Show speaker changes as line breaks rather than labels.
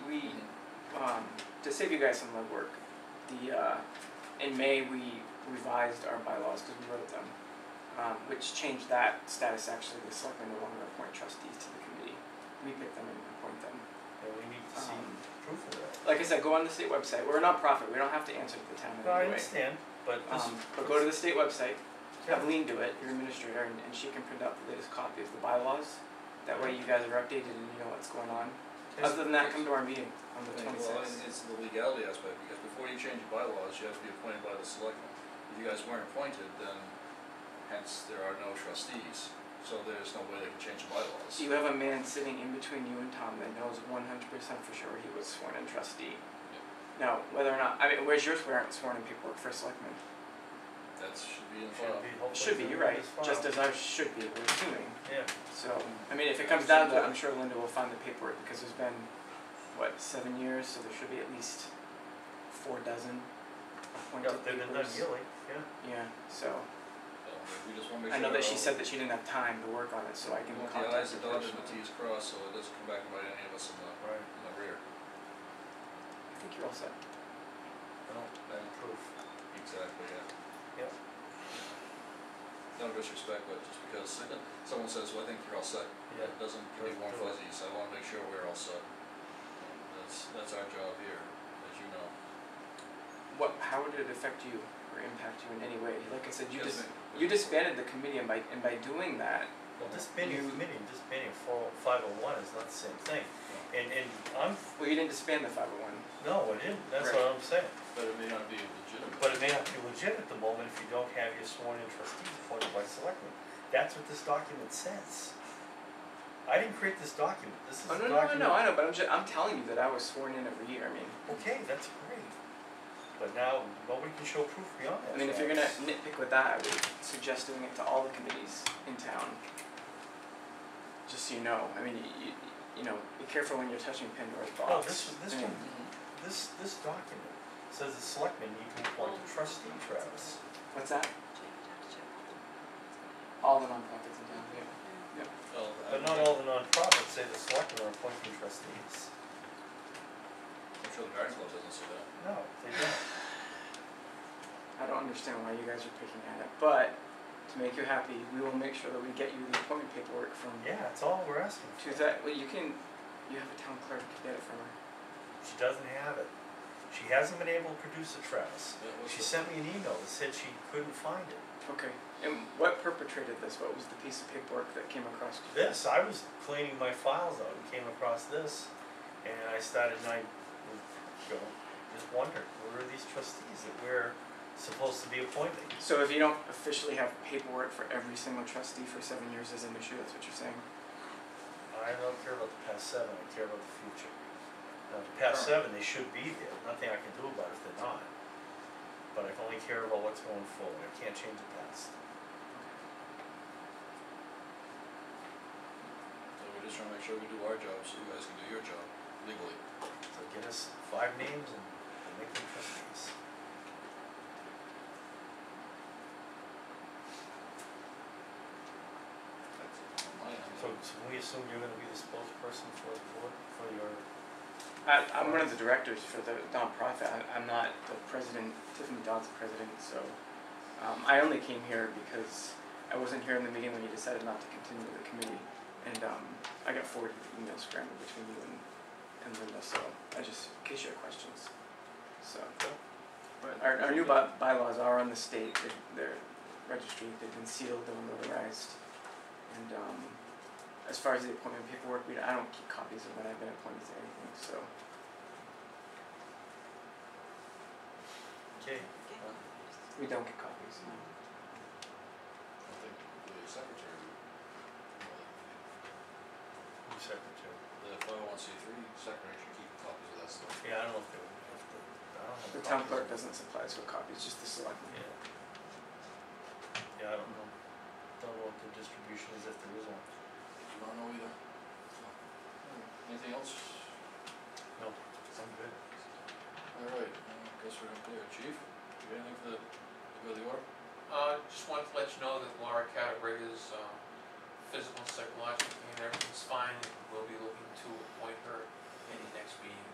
um, to save you guys some legwork, the, uh, in May, we revised our bylaws because we wrote them, um, which changed that status actually, the selectmen no longer appoint trustees to the committee. We pick them and appoint them.
Yeah, we need to see
Um,
proof of that.
Like I said, go on the state website, we're a nonprofit, we don't have to answer to the town
No, I
anyway.
understand, but this.
Um, but go to the state website, have Lean do it, your administrator, and, and she can print out the latest copy of the bylaws. That way you guys are updated and you know what's going on.
Just-
Other than that, come to our meeting on the
Well, it's-
twenty-sixth.
it's the legality aspect, because before you change bylaws, you have to be appointed by the selectmen. If you guys weren't appointed, then hence there are no trustees, so there's no way they can change the bylaws.
You have a man sitting in between you and Tom that knows one hundred percent for sure he was sworn in trustee. Now, whether or not, I mean, where's your swearing, sworn in paperwork for selectmen?
That should be in the file.
Should be hopefully.
Should be,
through
you're right,
this file.
just as ours should be, we're assuming.
Yeah,
So, I mean, if it comes down to it, I'm sure Linda will find the paperwork, because there's been, what, seven years, so there should be at least four dozen
yeah,
appointed papers.
they've been done yearly,
Yeah,
yeah.
so,
So, We just wanna make
I
sure.
know that she
uh,
said that she didn't have time to work on it, so I
We
can
want the
contact
i's
her
dotted and the
personally.
t's crossed, so it doesn't come back and bite any of us in the,
Right.
in the rear.
I think you're all set.
No,
Then,
proof.
exactly, yeah.
Yep.
No disrespect, but just because someone says, well, I think you're all set,
Yeah.
It doesn't give me warm
Doesn't do it.
fuzzies, I wanna make sure we're all set. That's, that's our job here, as you know.
What, how would it affect you or impact you in any way? Like I said, you dis-
Yes, ma'am.
you disbanded the committee and by, and by doing that,
Well, disbanding a
You-
committee and disbanding four, five oh one is not the same thing. And, and I'm,
well, you didn't disband the five oh one.
no, it isn't, that's what I'm saying.
But it may not be legitimate.
But it may not be legit at the moment if you don't have your sworn in trustees appointed by selectmen. That's what this document says. I didn't create this document, this is
Oh,
a
no,
document.
no, no, no, I know, but I'm ju- I'm telling you that I was sworn in every year, I mean.
Okay, that's great. But now, nobody can show proof beyond that.
I mean, if you're
fact.
gonna nitpick with that, I would suggest doing it to all the committees in town. Just so you know, I mean, you, you, you know, be careful when you're touching Pandora's box.
No, Oh, this was- this
I mean,
one- This, this document says the selectmen need to appoint a trustee, Travis.
What's that? All the nonprofits in town, yeah.
Well, I
But not all the nonprofits say the selectmen are appointing trustees.
I'm sure the garden club doesn't say that.
No, they don't.
I don't understand why you guys are picking at it, but to make you happy, we will make sure that we get you the appointment paperwork from.
Yeah, that's all we're asking for.
To that, well, you can, you have a town clerk get it from her.
She doesn't have it. She hasn't been able to produce it, Travis.
That was
She
the-
sent me an email that said she couldn't find it.
Okay, and what perpetrated this? What was the piece of paperwork that came across? you?
This, I was cleaning my files out and came across this, and I started and I, you know, just wondered, where are these trustees that we're supposed to be appointing?
So if you don't officially have paperwork for every single trustee for seven years is an issue, that's what you're saying?
I don't care about the past seven, I care about the future. Now, the past seven, they should be there, nothing I can do about it if they're not. But I can only care about what's going forward, I can't change the past.
So we're just trying to make sure we do our job, so you guys can do your job legally.
So get us five names and we'll make them trustees.
That's it. on my end.
So, so can we assume you're gonna be the spokesperson for the board, for your,
I, I'm one of the directors for the nonprofit, I, I'm not the president, Tiffany Dodd's the president, so, um, I only came here because I wasn't here in the meeting when you decided not to continue the committee, and, um, I got forwarded the email scrambled between you and, and Linda, so, I just, in case you have questions, so. But our, our new by- bylaws are on the state, they're, they're registered, they've been sealed, they're notarized, and, um, as far as the appointment paperwork, we, I don't keep copies of when I've been appointed to anything, so.
okay,
We don't get copies.
I think the secretary, well,
who's secretary?
the five oh one C three secretary should keep copies of that stuff.
Yeah, I don't know if they would have to, I don't know.
The town clerk doesn't supply us with copies, just the selectmen.
Yeah. Yeah, I don't know, don't know what the distribution is if there is one.
You don't know either. So, Anything else?
No, I'm good.
Alright, I guess we're gonna clear, chief, you got anything for the, to go to the order?
Uh, just wanted to let you know that Laura Catterbury is, um, physical, and psychological, and everything's fine, and we'll be looking to appoint her in the next meeting.